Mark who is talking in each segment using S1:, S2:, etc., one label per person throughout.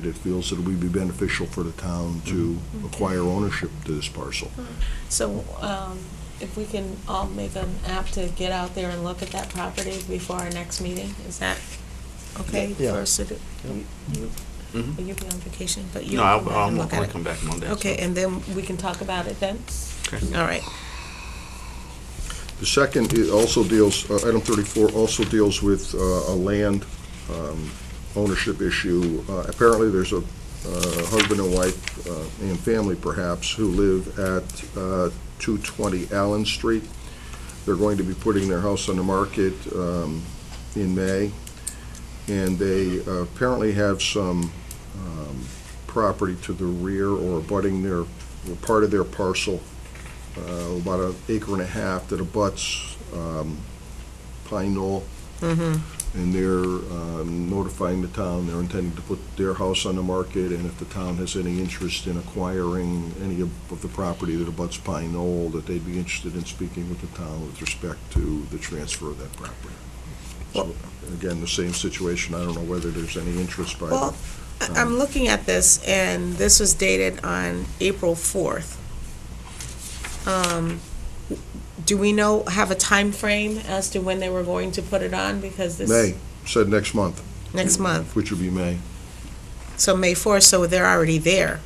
S1: that feels that it would be beneficial for the town to acquire ownership to this parcel.
S2: So um, if we can all make an app to get out there and look at that property before our next meeting, is that okay
S3: Yeah.
S2: for us to do? You- you-
S4: Mhm.
S2: Will you be on vacation, but you
S4: No, I'll,
S2: come
S4: I'll
S2: and
S4: I'll
S2: look at it?
S4: come back Monday. so-
S2: Okay, and then we can talk about it then?
S4: Okay.
S2: All right.
S1: The second i- also deals, uh, item 34 also deals with uh, a land um, ownership issue. Uh, Apparently, there's a uh, husband and wife, uh, and family perhaps, who live at uh, 220 Allen Street. They're going to be putting their house on the market um, in May, and they uh, apparently have some um, property to the rear or abutting their, or part of their parcel uh, about an acre and a half that abuts um, Pine Knoll. And they're um, notifying the town, they're intending to put their house on the market, and if the town has any interest in acquiring any of of the property that abuts Pine Knoll, that they'd be interested in speaking with the town with respect to the transfer of that property. So, again, the same situation, I don't know whether there's any interest by the
S2: Well, I-
S4: Um,
S2: I'm looking at this, and this was dated on April 4th. Um, Do we know, have a time frame as to when they were going to put it on? Because this...
S1: May, said next month,
S2: Next month,
S1: which would be May.
S2: so May 4th, so they're already there.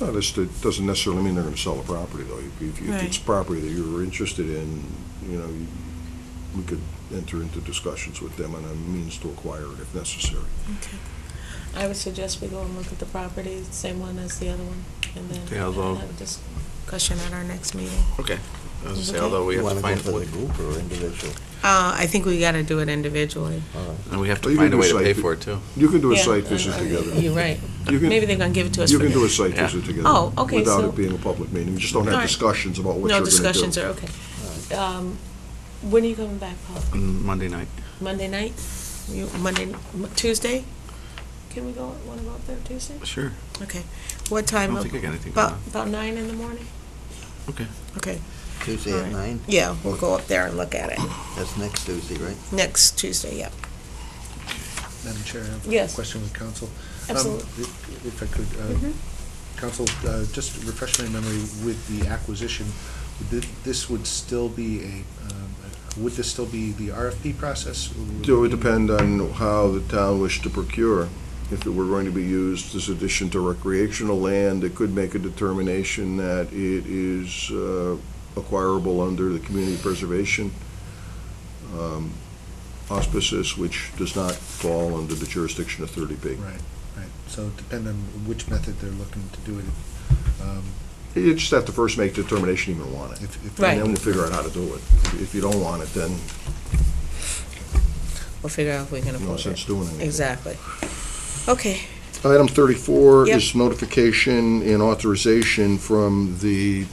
S1: Well, this doesn't necessarily mean they're going to sell the property, though. If- If if it's
S2: Right.
S1: property that you're interested in, you know, you- we could enter into discussions with them on a means to acquire it if necessary.
S2: I would suggest we go and look at the property, same one as the other one, and then
S4: Yeah, although-
S2: have a discussion at our next meeting.
S4: Okay. I was gonna say,
S2: Okay.
S4: although we
S3: You
S4: have to
S3: want to go
S4: find,
S3: for the
S4: what-
S3: group or individual?
S2: Uh, I think we gotta do it individually.
S3: All right.
S4: and we have
S1: Well,
S4: to
S1: you
S4: find a
S1: can
S4: way to
S1: decide
S4: pay
S1: to-
S4: for it too.
S1: You can do a
S2: Yeah,
S1: site visit
S2: uh,
S1: together.
S2: You're right.
S1: You can-
S2: Maybe they're gonna give it to us
S1: You
S2: for
S1: can do a
S2: free.
S1: site
S4: Yeah.
S1: visit together.
S2: Oh, okay,
S1: Without
S2: so-
S1: it being a public meeting. You just don't have
S2: Alright.
S1: discussions about what you're going
S2: No
S1: to do.
S2: discussions are, okay. Um, when are you coming back, Paul?
S4: On Monday night.
S2: Monday night? You, Monday, m- Tuesday? Can we go, wanna go up there Tuesday?
S4: Sure.
S2: Okay. What
S4: I
S2: time?
S4: don't
S2: of-
S4: think I got anything going
S2: About,
S4: on.
S2: about nine in the morning?
S4: Okay.
S2: Okay,
S3: Tuesday at
S2: Alright.
S3: nine?
S2: yeah, we'll go up there and look at it.
S3: That's next Tuesday, right?
S2: Next Tuesday, yeah.
S5: Madam Chair, I have
S2: Yes.
S5: a question with council. Um,
S2: Absolutely.
S5: if- If I could, uh,
S2: Mhm.
S5: council, uh, just refresh my memory with the acquisition, would thi- this would still be a, um, would this still be the RFP process?
S1: It would depend on how the town wished to procure. If it were going to be used as addition to recreational land, it could make a determination that it is uh, acquirable under the community preservation um, auspices, which does not fall under the jurisdiction of 30B.
S5: Right, right. So depend on which method they're looking to do it. um,
S1: You just have to first make determination you even want it.
S5: if- if-
S2: Right.
S1: And then we'll figure out how to do it. If you don't want it, then
S2: We'll figure out if we can
S1: no
S2: afford
S1: sense
S2: it.
S1: doing anything.
S2: Exactly. Okay,
S1: Item 34
S2: Yep.
S1: is notification and authorization from the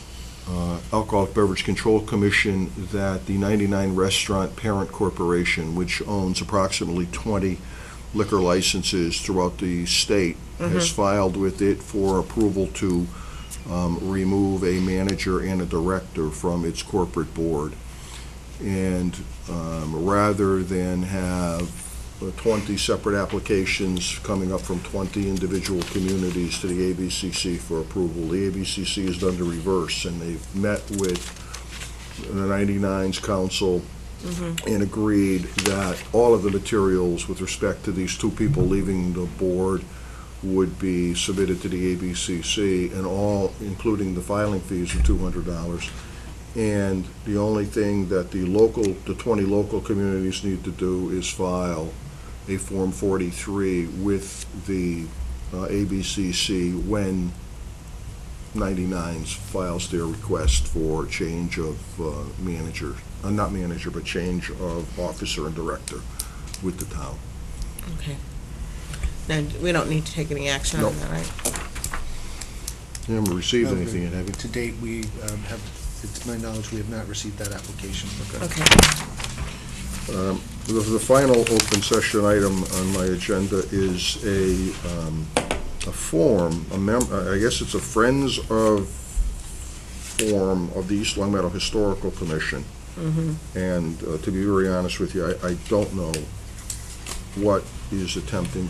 S1: uh, Alcoholic Beverage Control Commission that the 99 Restaurant Parent Corporation, which owns approximately 20 liquor licenses throughout the state, has filed with it for approval to um, remove a manager and a director from its corporate board. And um, rather than have uh, 20 separate applications coming up from 20 individual communities to the ABCC for approval. The ABCC has done the reverse, and they've met with the 99s council and agreed that all of the materials with respect to these two people leaving the board would be submitted to the ABCC, and all, including the filing fees of $200. And the only thing that the local, the 20 local communities need to do is file a Form 43 with the uh, ABCC when 99s files their request for change of uh, manager, uh, not manager, but change of officer and director with the town.
S2: okay. Now, we don't need to take any action on
S1: Nope.
S2: that, right?
S1: You haven't received
S5: No,
S1: anything yet, have you?
S5: To date, we um, have, to my knowledge, we have not received that application.
S2: Okay,
S1: The, the final open session item on my agenda is a, um, a form, a mem, I guess it's a Friends of form of the East Long Meadow Historical Commission. And uh, to be very honest with you, I, I don't know what is attempting